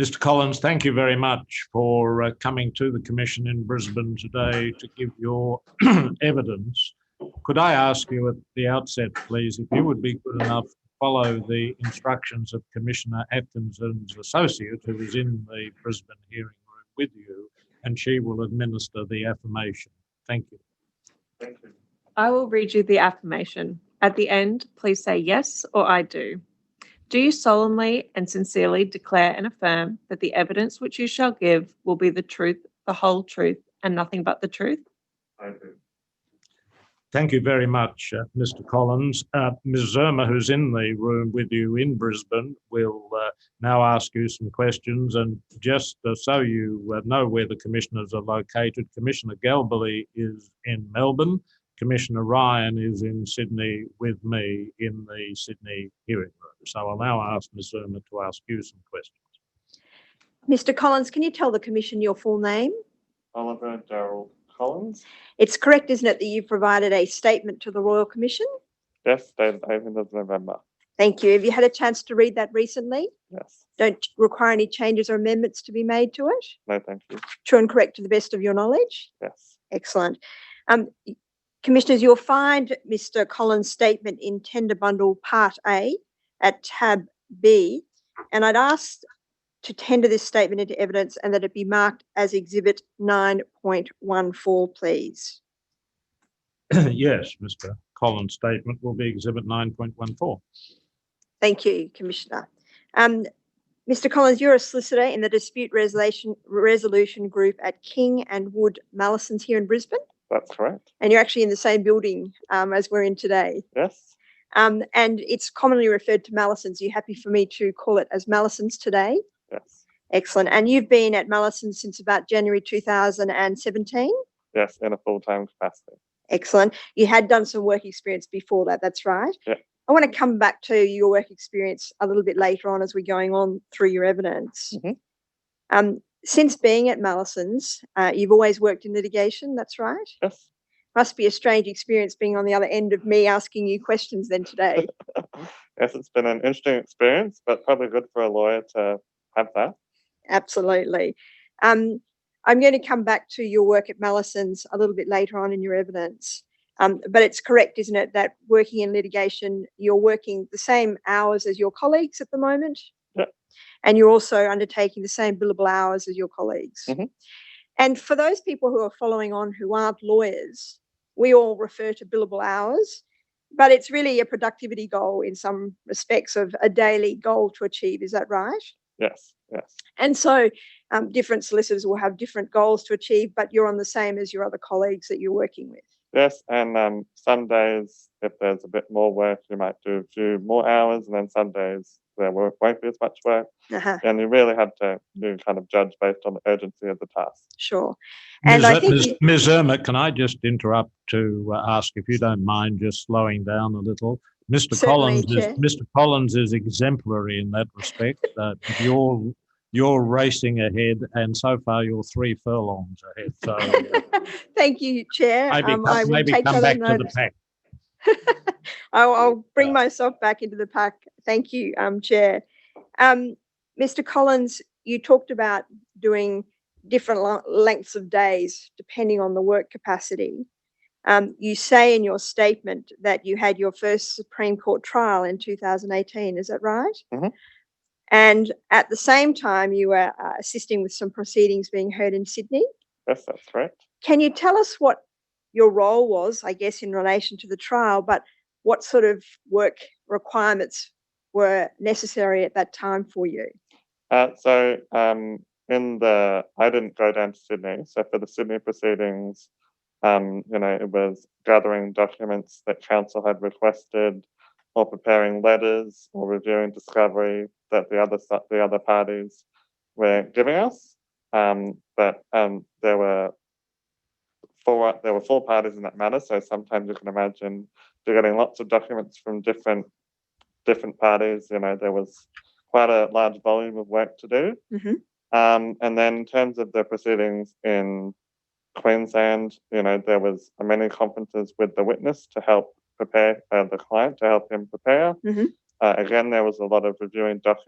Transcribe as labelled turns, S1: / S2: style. S1: Mr. Collins, thank you very much for uh, coming to the Commission in Brisbane today to give your evidence. Could I ask you at the outset, please, if you would be good enough to follow the instructions of Commissioner Atkinson's associate, who is in the Brisbane hearing room with you, and she will administer the affirmation. Thank you.
S2: I will read you the affirmation. At the end, please say yes or I do. Do you solemnly and sincerely declare and affirm that the evidence which you shall give will be the truth, the whole truth, and nothing but the truth?
S3: I do.
S1: Thank you very much, uh, Mr. Collins. Uh, Ms. Zerma, who's in the room with you in Brisbane, will uh, now ask you some questions. And just uh, so you uh, know where the commissioners are located, Commissioner Galbally is in Melbourne. Commissioner Ryan is in Sydney with me in the Sydney hearing room. So I'll now ask Ms. Zerma to ask you some questions.
S4: Mr. Collins, can you tell the Commission your full name?
S3: Oliver Darrell Collins.
S4: It's correct, isn't it, that you provided a statement to the Royal Commission?
S3: Yes, dated eighth of November.
S4: Thank you. Have you had a chance to read that recently?
S3: Yes.
S4: Don't require any changes or amendments to be made to it?
S3: No, thank you.
S4: True and correct to the best of your knowledge?
S3: Yes.
S4: Excellent. Um, Commissioners, you'll find Mr. Collins' statement in Tender Bundle Part A at tab B. And I'd ask to tender this statement into evidence and that it be marked as Exhibit 9.14, please.
S1: yes, Mr. Collins' statement will be Exhibit 9.14.
S4: Thank you, Commissioner. Um, Mr. Collins, you're a solicitor in the dispute resolution, resolution group at King and Wood Mallisons here in Brisbane,
S3: That's correct.
S4: and you're actually in the same building um, as we're in today.
S3: Yes.
S4: Um, and it's commonly referred to Mallisons. Are you happy for me to call it as Mallisons today?
S3: Yes.
S4: Excellent. And you've been at Mallisons since about January 2017?
S3: Yes. In a full-time capacity.
S4: Excellent. You had done some work experience before that, that's right.
S3: Yeah.
S4: I want to come back to your work experience a little bit later on as we're going on through your evidence.
S3: Mhm.
S4: Um, since being at Mallison's, uh, you've always worked in litigation, that's right.
S3: Yes.
S4: Must be a strange experience being on the other end of me asking you questions then today.
S3: yes, it's been an interesting experience, but probably good for a lawyer to have that.
S4: Absolutely. Um, I'm going to come back to your work at Mallison's a little bit later on in your evidence. Um, but it's correct, isn't it, that working in litigation, you're working the same hours as your colleagues at the moment?
S3: Yep.
S4: And you're also undertaking the same billable hours as your colleagues.
S3: Mhm.
S4: And for those people who are following on who aren't lawyers, we all refer to billable hours, but it's really a productivity goal in some respects of a daily goal to achieve. Is that right?
S3: Yes. Yes.
S4: And so um, different solicitors will have different goals to achieve, but you're on the same as your other colleagues that you're working with.
S3: Yes. And um, some days, if there's a bit more work, you might do a few more hours, and then some days there wo- won't be as much work.
S4: Uh-huh,
S3: And you really have to you kind of judge based on the urgency of the task.
S4: sure. And
S1: Ms.
S4: I
S1: Er-
S4: think
S1: Ms.
S4: you-
S1: Ms. Irma, can I just interrupt to uh, ask if you don't mind just slowing down a little? Mr.
S4: Certainly,
S1: Collins is,
S4: Chair.
S1: Mr. Collins is exemplary in that respect. Uh, but you're you're racing ahead, and so far you're three furlongs ahead. So uh,
S4: Thank you, Chair.
S1: maybe
S4: Um, I
S1: come,
S4: will
S1: maybe
S4: take
S1: come
S4: that
S1: back
S4: on
S1: to the
S4: notice.
S1: pack.
S4: I'll, I'll bring myself back into the pack. Thank you, um, Chair. Um, Mr. Collins, you talked about doing different lo- lengths of days depending on the work capacity. Um, you say in your statement that you had your first Supreme Court trial in 2018. Is that right?
S3: Mhm.
S4: And at the same time, you were uh, assisting with some proceedings being heard in Sydney.
S3: Yes, that's correct.
S4: Can you tell us what your role was, I guess, in relation to the trial, but what sort of work requirements were necessary at that time for you?
S3: Uh, so um, in the, I didn't go down to Sydney. So for the Sydney proceedings, um, you know, it was gathering documents that council had requested, or preparing letters, or reviewing discovery that the other si- the other parties were giving us. Um, but um, there were four there were four parties in that matter. So sometimes you can imagine you're getting lots of documents from different different parties. You know, there was quite a large volume of work to do.
S4: Mhm.
S3: Um, and then in terms of the proceedings in Queensland, you know, there was many conferences with the witness to help prepare uh, the client to help him prepare.
S4: Mhm.
S3: Uh, again, there was a lot of reviewing documents.